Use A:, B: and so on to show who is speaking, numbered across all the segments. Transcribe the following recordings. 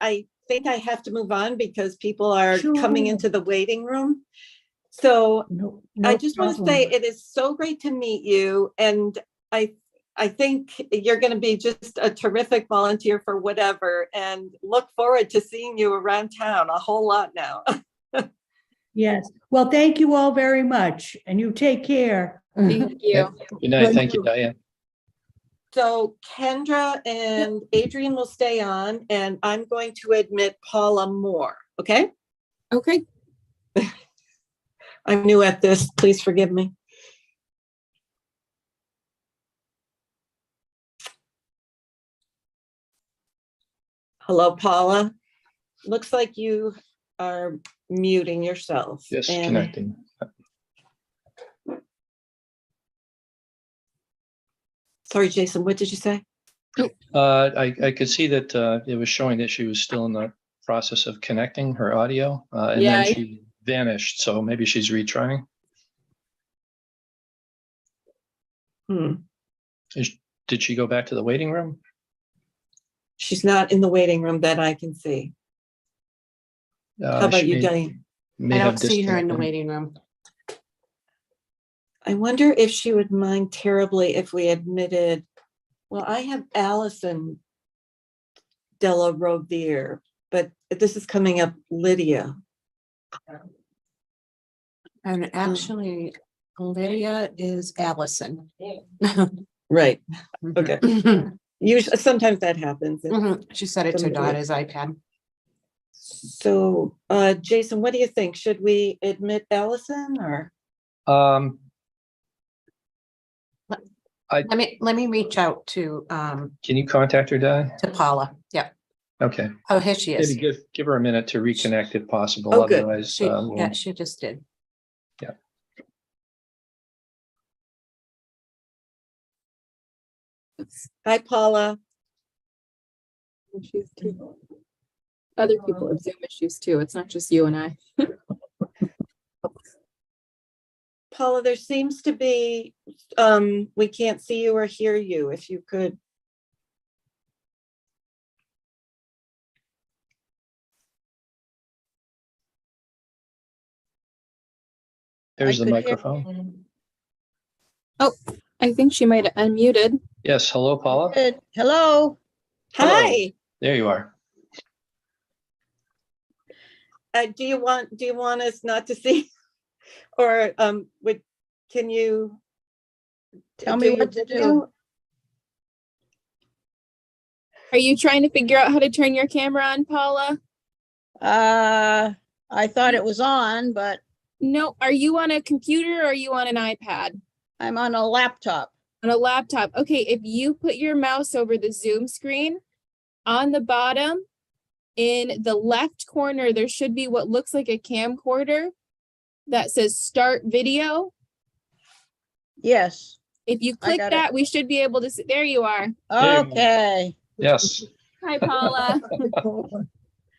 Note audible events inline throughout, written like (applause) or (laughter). A: I think I have to move on because people are coming
B: Sure.
A: into the waiting room. So
B: No,
A: I
B: no
A: just want to
B: problem.
A: say it is so great to meet you and I, I think you're going to be just a terrific volunteer for whatever and look forward to seeing you around town a whole lot now.
B: Yes, well, thank you all very much, and you take care.
A: Mm. (laughs)
C: Thank you.
D: Good night. Thank you, Diane.
A: So Kendra and Adrian will stay on and I'm going to admit Paula Moore, okay?
C: Okay.
A: (laughs) I'm new at this, please forgive me. Hello Paula, looks like you are muting yourself.
D: Yes,
A: and-
D: connecting.
A: Sorry, Jason, what did you say?
D: Uh, I, I could see that, uh, it was showing that she was still in the process of connecting her audio, uh, and
C: Yeah,
D: then
C: I-
D: she vanished. So maybe she's retrying.
A: Hmm,
D: Did she go back to the waiting room?
A: she's not in the waiting room that I can see.
D: Uh,
A: How about
D: she
A: you,
D: may-
A: Diane?
D: may
C: I
D: have
C: don't see her in the
D: disconnected.
C: waiting room.
A: I wonder if she would mind terribly if we admitted, well, I have Allison Della Rovere, but this is coming up Lydia.
C: And actually, Lydia is Allison. (clears throat)
A: Right. Okay. Mm-hmm. Usually, Mm-hmm. sometimes that happens.
C: Mhm. She said it to Donna's iPad.
A: So, uh, Jason, what do you think? Should we admit Allison or?
D: Um,
C: Let me, let me reach out to, um,
D: can you contact her, Di?
C: to Paula. Yeah.
D: Okay,
C: Oh, here she
D: maybe
C: is.
D: give, give her a minute to reconnect if possible.
A: Oh, good.
D: Otherwise,
C: She,
D: uh, we'll-
C: yeah, she just did.
A: Hi, Paula.
E: issues too. Other people have Zoom issues too. It's not just you and I.
A: Paula, there seems to be, um, we can't see you or hear you. If you could
D: there's the
A: could hear-
D: microphone.
E: I think she might have unmuted.
D: Yes, hello, Paula.
F: Good. Hello.
A: Oh.
D: Hello.
A: Hi,
D: There you are.
A: uh, do you want, do you want us not to see? (laughs) Or, um, would, can you?
F: Tell
A: do
F: me
A: your
F: what to do.
A: video?
E: Are you trying to figure out how to turn your camera on, Paula?
F: Uh, I thought it was on, but
E: No, are you on a computer or are you on an iPad?
F: I'm on a laptop.
E: On a laptop? Okay, if you put your mouse over the Zoom screen on the bottom, in the left corner, there should be what looks like a camcorder that says start video.
F: Yes.
E: If you
F: I
E: click
F: got it.
E: that, we should be able to see. There you are.
D: There you go.
F: Okay.
C: (laughs)
D: Yes.
F: (laughs)
E: Hi, Paula.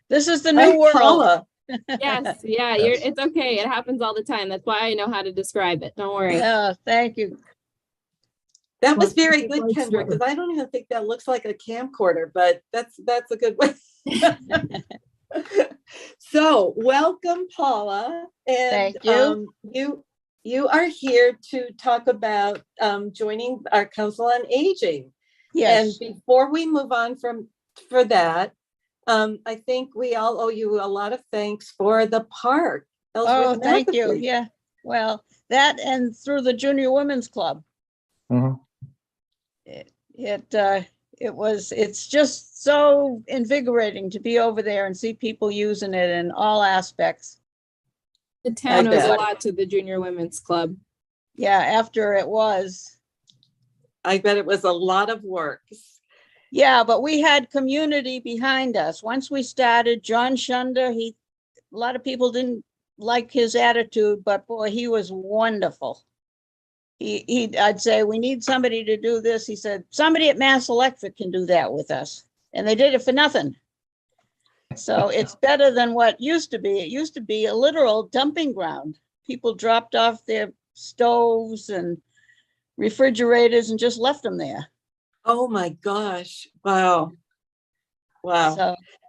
F: This is the
A: Hi,
F: new world.
A: Paula.
E: yes yeah you're
D: Yes.
E: it's okay it happens all the time that's why i know how to describe it don't
F: (laughs)
E: worry
F: Yeah, thank you.
A: That was
B: Like,
A: very
B: it
A: good,
B: looks
A: Kendra, because I don't even think that looks like a camcorder, but that's, that's a good way. (laughs) So, welcome Paula and
F: Thank you.
A: um, you, you are here to talk about um, joining our Council on Aging. And
F: Yes.
A: before we move on from, for that, um, I think we all owe you a lot of thanks for the park.
F: Oh,
A: Ellsworth
F: thank you.
A: Magazine.
F: Yeah. Well, that and through the Junior Women's Club.
D: Mhm.
F: It, uh, it was, it's just so invigorating to be over there and see people using it in all aspects.
E: the town owes a
A: bet.
E: lot to the junior women's club
F: Yeah, after it was.
A: I bet it was a lot of work.
F: Yeah, but we had community behind us. Once we started, John Shunder, he, a lot of people didn't like his attitude, but boy, he was wonderful. He, he, I'd say, we need somebody to do this. He said, somebody at Mass Electric can do that with us. And they did it for nothing. So it's better than what used to be. It used to be a literal dumping ground. People dropped off their stoves and refrigerators and just left them there.
A: Oh, my gosh. Wow. Wow.
F: So